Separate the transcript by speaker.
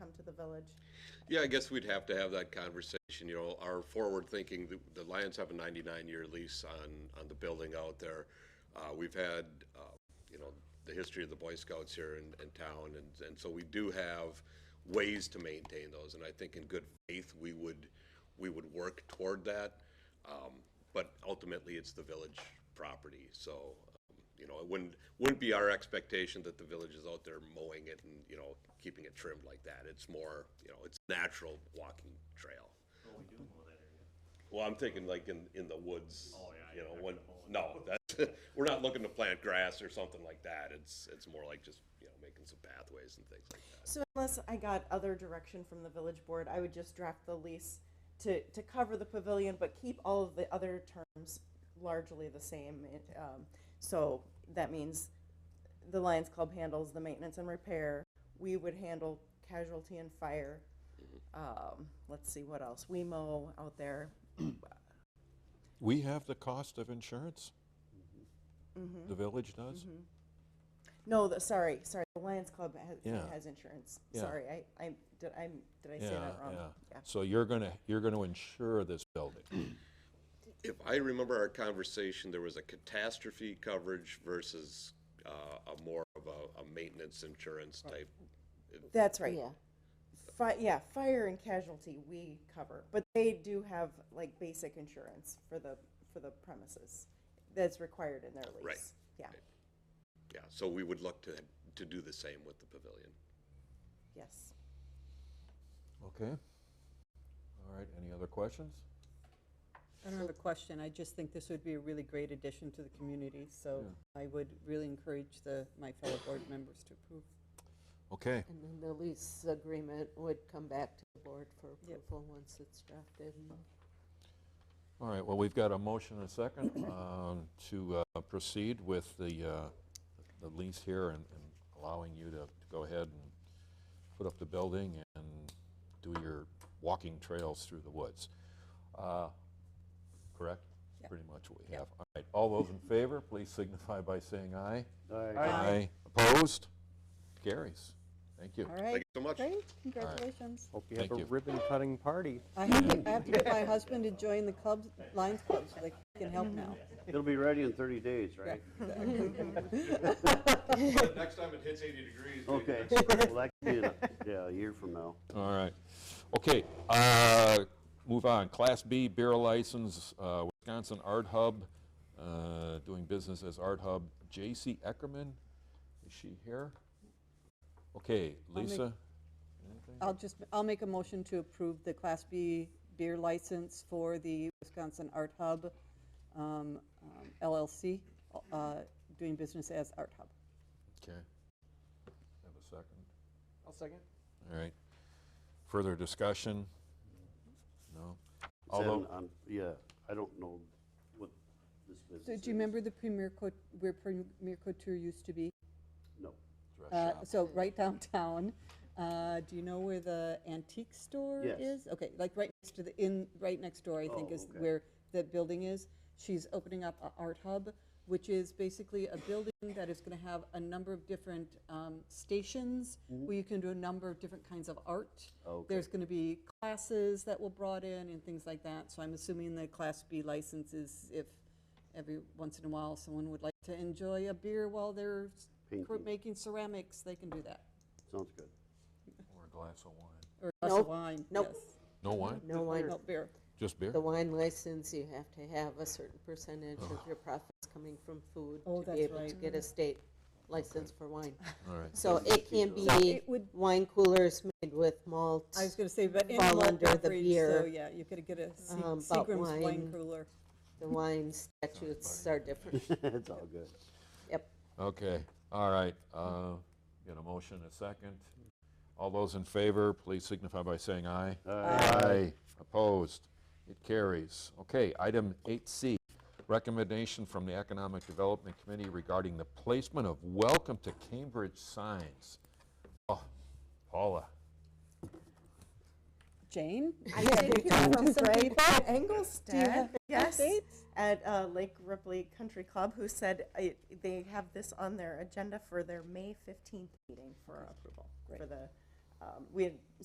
Speaker 1: village.
Speaker 2: Yeah, I guess we'd have to have that conversation, you know, our forward thinking, the- the Lions have a 99-year lease on, on the building out there. Uh, We've had, uh, you know, the history of the Boy Scouts here in, in town, and, and so we do have ways to maintain those, and I think in good faith, we would, we would work toward that. Um, But ultimately, it's the village property, so, um, you know, it wouldn't, wouldn't be our expectation that the village is out there mowing it and, you know, keeping it trimmed like that. It's more, you know, it's natural walking trail. Well, I'm thinking like in, in the woods, you know, when, no, that's, we're not looking to plant grass or something like that. It's, it's more like just, you know, making some pathways and things like that.
Speaker 1: So unless I got other direction from the village board, I would just draft the lease to, to cover the pavilion, but keep all of the other terms largely the same. It, um, So that means the Lions Club handles the maintenance and repair. We would handle casualty and fire. Um, Let's see, what else? We mow out there.
Speaker 3: We have the cost of insurance. The village does.
Speaker 1: No, the, sorry, sorry, the Lions Club has,
Speaker 3: Yeah.
Speaker 1: has insurance.
Speaker 3: Yeah.
Speaker 1: Sorry, I, I, did I, did I say
Speaker 3: Yeah,
Speaker 1: that wrong?
Speaker 3: yeah.
Speaker 1: Yeah.
Speaker 3: So you're gonna, you're gonna insure this building.
Speaker 2: If I remember our conversation, there was a catastrophe coverage versus, uh, a more of a, a maintenance insurance type.
Speaker 1: That's right. Yeah. Fi- yeah, fire and casualty we cover, but they do have like basic insurance for the for the premises that's required in their lease.
Speaker 2: Right.
Speaker 1: Yeah.
Speaker 2: Yeah, so we would look to, to do the same with the pavilion.
Speaker 1: Yes.
Speaker 3: Okay. All right, any other questions?
Speaker 4: I don't have a question. I just think this would be a really great addition to the community, so I would really encourage the, my fellow board members to approve.
Speaker 3: Okay,
Speaker 5: And then the lease agreement would come back to the board for
Speaker 4: Yep. Mm-hmm.
Speaker 5: approval once it's drafted. and-
Speaker 3: all right, well, we've got a motion and a second um, to uh, proceed with the, uh, the lease here and and allowing you to to go ahead and put up the building and do your walking trails through the woods. Uh, Correct?
Speaker 4: Yep.
Speaker 3: Pretty much what we have. All right, all those in favor, please signify by saying aye.
Speaker 6: Aye.
Speaker 3: Opposed? Carries. Thank you.
Speaker 4: All
Speaker 2: Thank
Speaker 4: right,
Speaker 2: you so much.
Speaker 4: great, congratulations.
Speaker 6: Hope you
Speaker 3: Thank
Speaker 6: have a
Speaker 3: you.
Speaker 6: ribbon cutting party.
Speaker 4: I have to, I have to get my husband to join the clubs, Lions Club, so they can help now.
Speaker 6: It'll be ready in 30 days, right?
Speaker 2: Next time it hits 80 degrees.
Speaker 6: Okay, well, that could be in a, yeah, a year from now.
Speaker 3: All right. Okay, uh, move on. Class B beer license, uh, Wisconsin Art Hub, uh, doing business as Art Hub. J.C. Eckerman, is she here? Okay,
Speaker 4: make-
Speaker 3: Lisa?
Speaker 4: I'll just, I'll make a motion to approve the Class B beer license for the Wisconsin Art Hub um, um, LLC, uh, doing business as Art Hub.
Speaker 3: Okay. Have a second?
Speaker 6: I'll second.
Speaker 3: All right. Further discussion? No? Although,
Speaker 6: um, Yeah, I don't know what this business
Speaker 4: So
Speaker 6: is.
Speaker 4: do you remember the Premier Cote, where Premier Couture used to be?
Speaker 6: No.
Speaker 4: Uh, So right downtown, uh, do you know where the antique store
Speaker 6: Yes.
Speaker 4: is? Okay, like right next to the, in, right next door, I think,
Speaker 6: Oh,
Speaker 4: is
Speaker 6: okay.
Speaker 4: where the building is. She's opening up a art hub, which is basically a building that is gonna have a number of different um, stations where you can do a number of different kinds of art.
Speaker 6: Mm-hmm. Okay.
Speaker 4: There's gonna be classes that will brought in and things like that, so I'm assuming the Class B license is if every once in a while someone would like to enjoy a beer while they're s- cr-
Speaker 6: Painting.
Speaker 4: making ceramics, they can do that.
Speaker 6: Sounds good.
Speaker 3: Or a glass of wine.
Speaker 4: Or a glass of
Speaker 5: Nope,
Speaker 4: wine, yes.
Speaker 5: nope.
Speaker 3: No wine?
Speaker 5: No wine,
Speaker 4: No beer.
Speaker 3: Just beer?
Speaker 5: the wine license, you have to have a certain percentage of your profits coming from food
Speaker 4: Oh,
Speaker 5: to be
Speaker 4: that's
Speaker 5: able to
Speaker 4: right.
Speaker 5: get a state license for wine.
Speaker 3: All right.
Speaker 5: So it can be
Speaker 4: it would-
Speaker 5: wine coolers made with malt,
Speaker 4: I was gonna say, but in
Speaker 5: Fall
Speaker 4: malt
Speaker 5: under the
Speaker 4: beverage, so
Speaker 5: beer,
Speaker 4: yeah, you could get a Se-
Speaker 5: um, but
Speaker 4: Seagram's wine
Speaker 5: wine-
Speaker 4: cooler.
Speaker 5: the wine statutes are different.
Speaker 6: It's all good.
Speaker 5: Yep,
Speaker 3: Okay, all right. uh, Got a motion, a second. All those in favor, please signify by saying aye. Aye. Opposed? It carries. Okay, item 8C, recommendation from the Economic Development Committee regarding the placement of welcome to Cambridge signs. Oh, Paula,
Speaker 4: Jane?
Speaker 1: I did hear from Greg at Engelstad, yes,
Speaker 4: updates?
Speaker 1: at uh, Lake Ripley Country Club, who said I, they have this on their agenda for their May 15th meeting for approval. For the, um, we had